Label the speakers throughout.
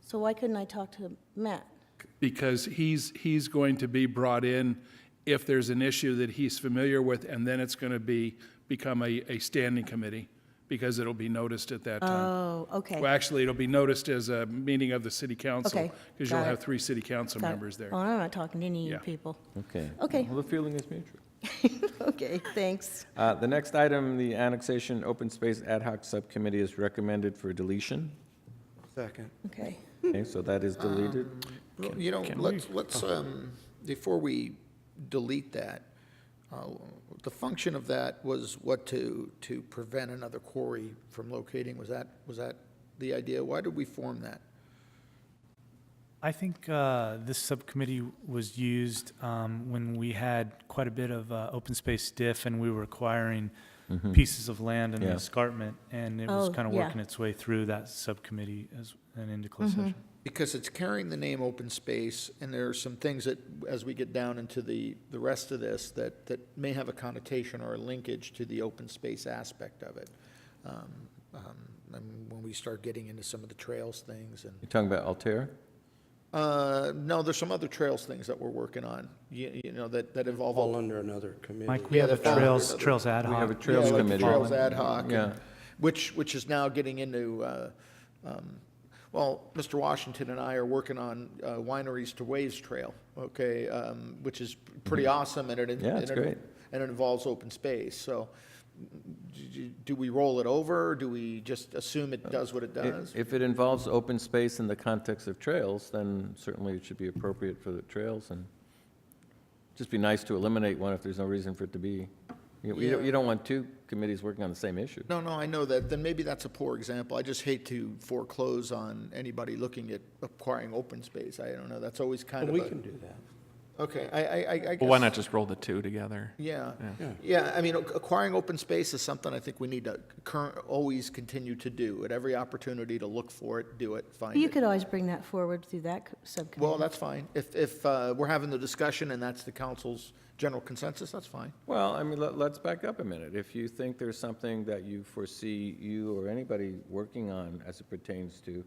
Speaker 1: So why couldn't I talk to Matt?
Speaker 2: because he's, he's going to be brought in if there's an issue that he's familiar with, and then it's going to be, become a, a standing committee, because it'll be noticed at that time.
Speaker 1: Oh, okay.
Speaker 2: Well, actually, it'll be noticed as a meeting of the city council.
Speaker 1: Okay,
Speaker 2: Because you'll
Speaker 1: got it.
Speaker 2: have three city council
Speaker 1: Got it.
Speaker 2: members there.
Speaker 1: Well, Oh, I'm not talking to any of you
Speaker 2: Yeah.
Speaker 1: people.
Speaker 3: Okay.
Speaker 1: Okay.
Speaker 3: Well, the feeling is mutual.
Speaker 1: Okay, thanks.
Speaker 3: Uh, The next item, the Annexation Open Space Ad Hoc Subcommittee is recommended for deletion.
Speaker 4: Second.
Speaker 1: Okay.
Speaker 5: Hmm.
Speaker 3: Okay, so that
Speaker 5: Ah.
Speaker 3: is deleted.
Speaker 5: Well, You know, let's, let's, um, before we delete that, uh, the function of that was what to, to prevent another quarry from locating, was that, was that the idea? Why did we form that?
Speaker 6: I think uh, this subcommittee was used um, when we had quite a bit of uh, open space diff, and we were acquiring pieces of land in the
Speaker 3: Mm-hmm. Yeah.
Speaker 6: escarpment, and it was
Speaker 1: Oh,
Speaker 6: kind of
Speaker 1: yeah. Mm-hmm.
Speaker 6: working its way through that subcommittee as, and into closed session.
Speaker 5: Because it's carrying the name open space, and there are some things that, as we get down into the, the rest of this, that, that may have a connotation or a linkage to the open space aspect of it. Um, um, and When we start getting into some of the trails things and
Speaker 3: You're talking about Altair?
Speaker 5: Uh, no, there's some other trails things that we're working on, you, you know, that, that involve.
Speaker 4: All under another committee.
Speaker 6: Mike, we
Speaker 5: Yeah,
Speaker 6: have a
Speaker 5: that falls
Speaker 6: trails,
Speaker 5: under the-
Speaker 6: trails ad
Speaker 3: We
Speaker 6: hoc.
Speaker 3: have a Trails
Speaker 5: Yeah, like
Speaker 3: Committee.
Speaker 5: Trails ad hoc. and-
Speaker 3: Yeah.
Speaker 5: Which, which is now getting into, uh, um, well, Mr. Washington and I are working on uh, wineries to waves trail, okay? um, Which is pretty awesome and it. and
Speaker 3: Mm-hmm. Yeah, it's
Speaker 5: it-
Speaker 3: great.
Speaker 5: And it involves open space, so do- do we roll it over? or Do we just assume it does what it
Speaker 3: I-
Speaker 5: does?
Speaker 3: If Uh, it involves open space in the context of trails, then certainly it should be appropriate for the trails, and just be nice to eliminate one if there's no reason for it to be. You- You don't- you don't want two committees working on the same issue.
Speaker 5: No, no, I know that, then maybe that's a poor example. I just hate to foreclose on anybody looking at acquiring open space. I don't know, that's always kind
Speaker 4: But
Speaker 5: of
Speaker 4: we
Speaker 5: a.
Speaker 4: can do that.
Speaker 5: Okay, I, I, I- I guess.
Speaker 7: Well, why not just roll the two together?
Speaker 5: Yeah,
Speaker 4: Yeah.
Speaker 5: yeah, I mean, ac- acquiring open space is something I think we need to current, always continue to do. At every opportunity to look for it, do it, find
Speaker 1: You
Speaker 5: it.
Speaker 1: could always bring that forward through that co-
Speaker 5: Well,
Speaker 1: subcommittee.
Speaker 5: that's fine. If, if uh, we're having the discussion and that's the council's general consensus, that's fine.
Speaker 3: Well, I mean, let, let's back up a minute. If you think there's something that you foresee you or anybody working on as it pertains to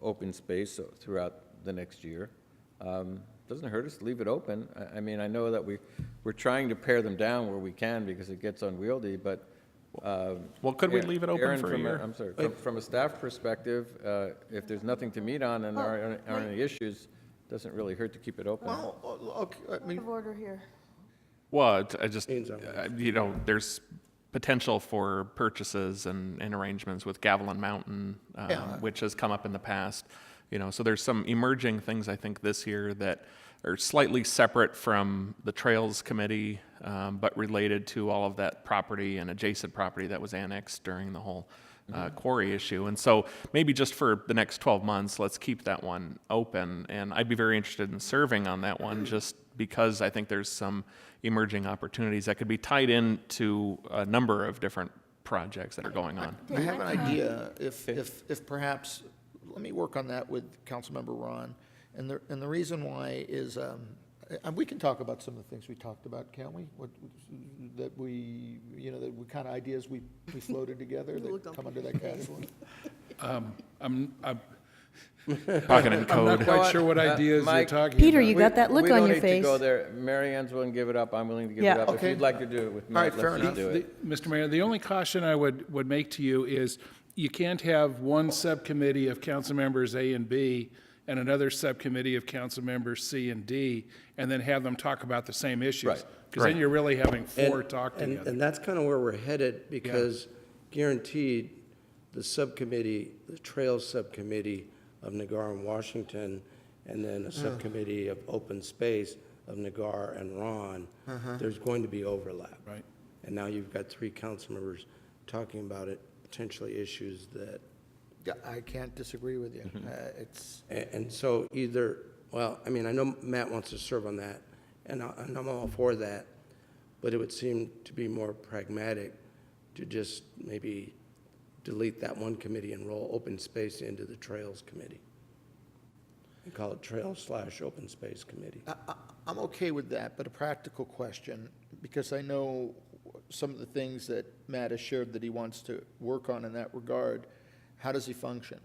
Speaker 3: open space uh, throughout the next year, um, doesn't hurt us to leave it open. I, I mean, I know that we, we're trying to pare them down where we can because it gets unwieldy, but, um.
Speaker 7: Well, could we
Speaker 3: Aaron-
Speaker 7: leave it open
Speaker 3: Aaron,
Speaker 7: for a
Speaker 3: from uh,
Speaker 7: year?
Speaker 3: I'm sorry, from, from a staff perspective, uh, if there's nothing to meet on and there aren't, aren't any issues, doesn't really hurt to keep it open.
Speaker 5: Well, o- okay, I mean,
Speaker 1: order here.
Speaker 7: Well, it's- I just,
Speaker 4: Means I'm-
Speaker 7: uh, you know, there's potential for purchases and, and arrangements with Gavilan Mountain, um,
Speaker 5: Yeah.
Speaker 7: which has come up in the past. You know, so there's some emerging things I think this year that are slightly separate from the Trails Committee, um, but related to all of that property and adjacent property that was annexed during the whole uh, quarry issue. And so maybe just for the next 12 months, let's keep that one open. And I'd be very interested in serving on that one just because I think there's some emerging opportunities that could be tied into a number of different projects that are going on.
Speaker 5: I have an idea, if, if, if perhaps, let me work on that with Councilmember Ron. And the, and the reason why is, um, and we can talk about some of the things we talked about, can't we? What, that we, you know, that we kind of ideas we, we floated together that come under that category.
Speaker 2: I'm, I'm
Speaker 7: Pocket and
Speaker 2: I'm not
Speaker 7: code.
Speaker 2: quite sure what
Speaker 3: Uh,
Speaker 2: ideas you're
Speaker 3: Mike-
Speaker 2: talking about.
Speaker 1: Peter, you
Speaker 3: Uh, We-
Speaker 1: got that look
Speaker 3: we
Speaker 1: on
Speaker 3: don't
Speaker 1: your
Speaker 3: need to
Speaker 1: face.
Speaker 3: go there. Mary Ann's willing to give it up. I'm willing to give it
Speaker 1: Yeah.
Speaker 3: up. If
Speaker 5: Okay.
Speaker 3: you'd like to do it with Matt,
Speaker 5: right, fair
Speaker 3: let's just
Speaker 5: enough.
Speaker 3: do
Speaker 2: The-
Speaker 3: it.
Speaker 2: Mr. Mayor, the only caution I would, would make to you is you can't have one subcommittee of council members A and B and another subcommittee of council members C and D and then have them talk about the same issues.
Speaker 3: Right,
Speaker 2: Because then
Speaker 7: right.
Speaker 2: you're really having four
Speaker 4: And-
Speaker 2: talk
Speaker 4: and-
Speaker 2: together.
Speaker 4: And that's kind of where we're headed, because guaranteed, the subcommittee, the Trails Subcommittee of Nagar and Washington, and then a subcommittee of Open Space of Nagar and Ron, there's going to be overlap.
Speaker 2: Right.
Speaker 4: And now you've got three council members talking about it, potentially issues that
Speaker 5: Yeah, I can't disagree with you. Uh, It's,
Speaker 4: A- And so either, well, I mean, I know Matt wants to serve on that, and I- and I'm all for that, but it would seem to be more pragmatic to just maybe delete that one committee and roll open space into the Trails Committee. And call it Trails slash Open Space Committee.
Speaker 5: I- I- I'm okay with that, but a practical question, because I know some of the things that Matt has shared that he wants to work on in that regard, how does he function?